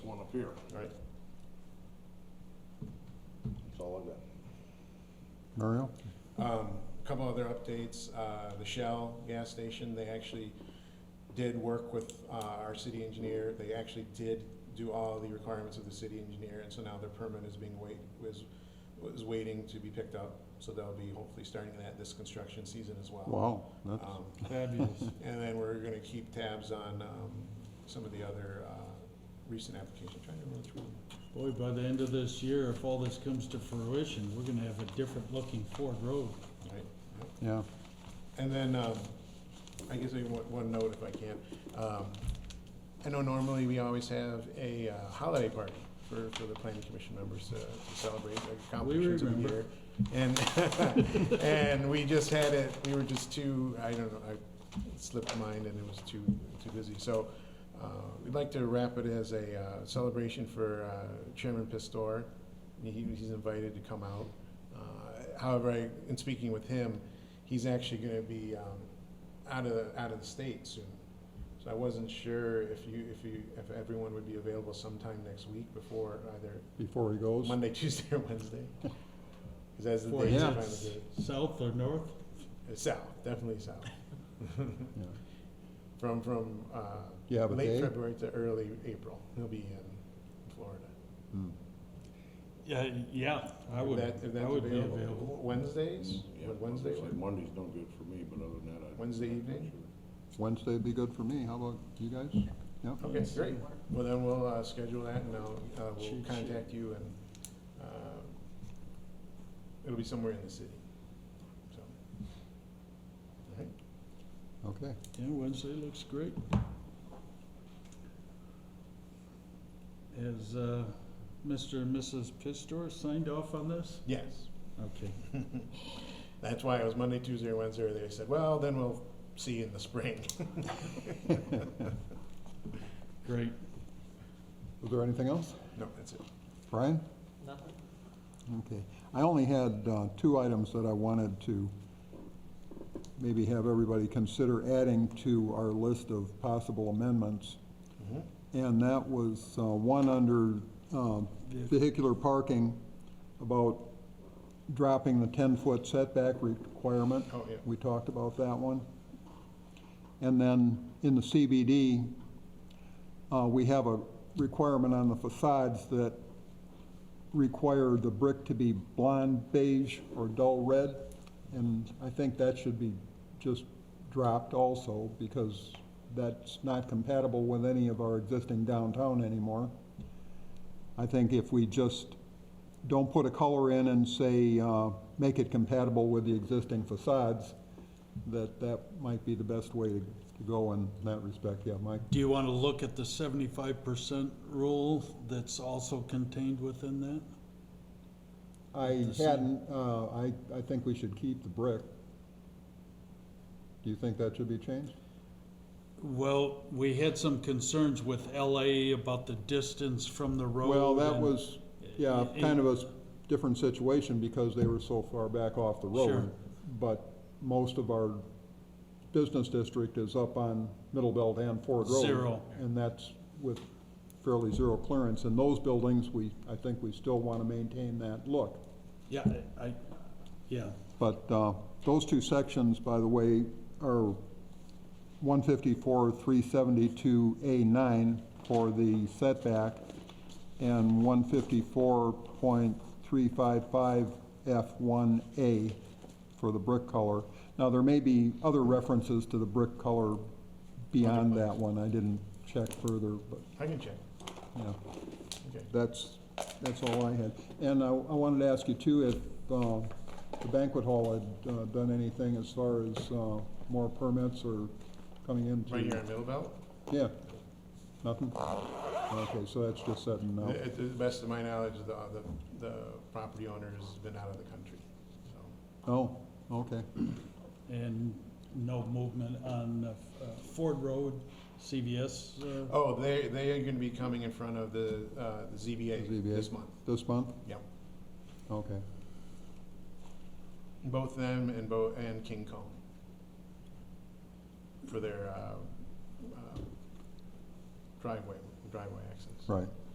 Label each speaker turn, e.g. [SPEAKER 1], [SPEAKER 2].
[SPEAKER 1] one up here.
[SPEAKER 2] Right. That's all I got.
[SPEAKER 3] Muriel?
[SPEAKER 2] Um, Couple other updates, uh, the Shell gas station, they actually did work with uh, our city engineer. They actually did do all the requirements of the city engineer, and so now their permit is being wait, was, was waiting to be picked up. So they'll be hopefully starting that this construction season as well.
[SPEAKER 3] Wow, that's,
[SPEAKER 2] Um,
[SPEAKER 1] Fabulous.
[SPEAKER 2] And then we're gonna keep tabs on um, some of the other uh, recent applications, trying to remember which one.
[SPEAKER 1] Boy, by the end of this year, if all this comes to fruition, we're gonna have a different looking Ford Road.
[SPEAKER 2] Right. Yep.
[SPEAKER 3] yeah.
[SPEAKER 2] And then, um, I guess maybe one, one note if I can. Um, I know normally we always have a uh, holiday party for, for the planning commission members to to celebrate their accomplishments of the
[SPEAKER 1] remember.
[SPEAKER 2] year. And, and we just had it, we were just too, I don't know, I it slipped mine and it was too, too busy. So, uh, we'd like to wrap it as a uh, celebration for uh, Chairman Pistor. He, he's invited to come out. Uh, However, I, in speaking with him, he's actually gonna be, um, out of, the- out of the state soon. So I wasn't sure if you, if you, if everyone would be available sometime next week before either
[SPEAKER 3] Before he goes?
[SPEAKER 2] Monday, Tuesday, or Wednesday. Cause that's the
[SPEAKER 1] Ford
[SPEAKER 2] days
[SPEAKER 3] Yeah.
[SPEAKER 2] I'm
[SPEAKER 1] is South or north?
[SPEAKER 2] South, definitely south.
[SPEAKER 3] Yeah.
[SPEAKER 2] From, from, uh,
[SPEAKER 3] You have a
[SPEAKER 2] late
[SPEAKER 3] day?
[SPEAKER 2] February to early April. He'll be in Florida.
[SPEAKER 3] Hmm.
[SPEAKER 1] Yeah, yeah, I
[SPEAKER 2] If
[SPEAKER 1] would,
[SPEAKER 2] that- if
[SPEAKER 1] I
[SPEAKER 2] that's
[SPEAKER 1] would be available.
[SPEAKER 2] Wednesdays,
[SPEAKER 4] Yeah,
[SPEAKER 2] would Wednesday,
[SPEAKER 4] I'd say
[SPEAKER 2] work?
[SPEAKER 4] Monday's no good for me, but other than that, I.
[SPEAKER 2] Wednesday evening?
[SPEAKER 3] Wednesday'd be good for me, how about you guys? Yep,
[SPEAKER 2] Okay, great. Well, then we'll, uh, schedule that and I'll, uh, we'll
[SPEAKER 1] Shoot,
[SPEAKER 2] contact you and, uh, it'll be somewhere in the city, so. All right.
[SPEAKER 3] okay.
[SPEAKER 1] Yeah, Wednesday looks great. Has, uh, Mr. and Mrs. Pistor signed off on this?
[SPEAKER 2] Yes,
[SPEAKER 1] Okay.
[SPEAKER 2] that's why it was Monday, Tuesday, or Wednesday, or they said, well, then we'll see you in the spring.
[SPEAKER 1] Great.
[SPEAKER 3] Was there anything else?
[SPEAKER 2] No, that's it.
[SPEAKER 3] Brian? Nothing. Okay, I only had uh, two items that I wanted to maybe have everybody consider adding to our list of possible amendments.
[SPEAKER 2] Mhm.
[SPEAKER 3] And that was uh, one under um, vehicular parking about dropping the 10-foot setback requirement.
[SPEAKER 2] Oh, yeah.
[SPEAKER 3] We talked about that one. And then in the CBD, uh, we have a requirement on the facades that require the brick to be blonde beige or dull red. And I think that should be just dropped also because that's not compatible with any of our existing downtown anymore. I think if we just don't put a color in and say, uh, make it compatible with the existing facades, that that might be the best way to to go in that respect, yeah, Mike?
[SPEAKER 1] Do you want to look at the seventy-five percent rule that's also contained within that?
[SPEAKER 3] I
[SPEAKER 1] The same.
[SPEAKER 3] hadn't, uh, I, I think we should keep the brick. Do you think that should be changed?
[SPEAKER 1] Well, we had some concerns with LA about the distance from the road.
[SPEAKER 3] Well, that
[SPEAKER 1] and-
[SPEAKER 3] was, yeah,
[SPEAKER 1] Eh, eh,
[SPEAKER 3] kind of a s- different situation because they were so far back off the
[SPEAKER 1] Sure.
[SPEAKER 3] road. But most of our business district is up on Middle Belt and Ford Road.
[SPEAKER 1] Zero.
[SPEAKER 3] And that's with fairly zero clearance. And those buildings, we, I think we still want to maintain that look.
[SPEAKER 1] Yeah, I, I- yeah,
[SPEAKER 3] But uh, those two sections, by the way, are 154, 372A9 for the setback, and 154.355F1A for the brick color. Now, there may be other references to the brick color beyond that one. I didn't check further, but,
[SPEAKER 2] I can check,
[SPEAKER 3] yeah.
[SPEAKER 2] okay.
[SPEAKER 3] That's, that's all I had. And I, I wanted to ask you too, if, uh, the banquet hall had, uh, done anything as far as, uh, more permits or coming into?
[SPEAKER 2] Right here in Middle Belt?
[SPEAKER 3] Yeah, nothing? Okay, so that's just setting
[SPEAKER 2] Uh,
[SPEAKER 3] now.
[SPEAKER 2] To the best of my knowledge, the, the, the property owner has been out of the country, so.
[SPEAKER 3] Oh, okay,
[SPEAKER 1] and no movement on uh, Ford Road, CVS. uh,
[SPEAKER 2] Oh, they, they are gonna be coming in front of the, uh, the ZBA
[SPEAKER 3] ZBA.
[SPEAKER 2] this month,
[SPEAKER 3] this month?
[SPEAKER 2] yeah.
[SPEAKER 3] Okay,
[SPEAKER 2] Both them and Bo, and King Kong. For their, uh, uh, driveway, driveway access.
[SPEAKER 3] right.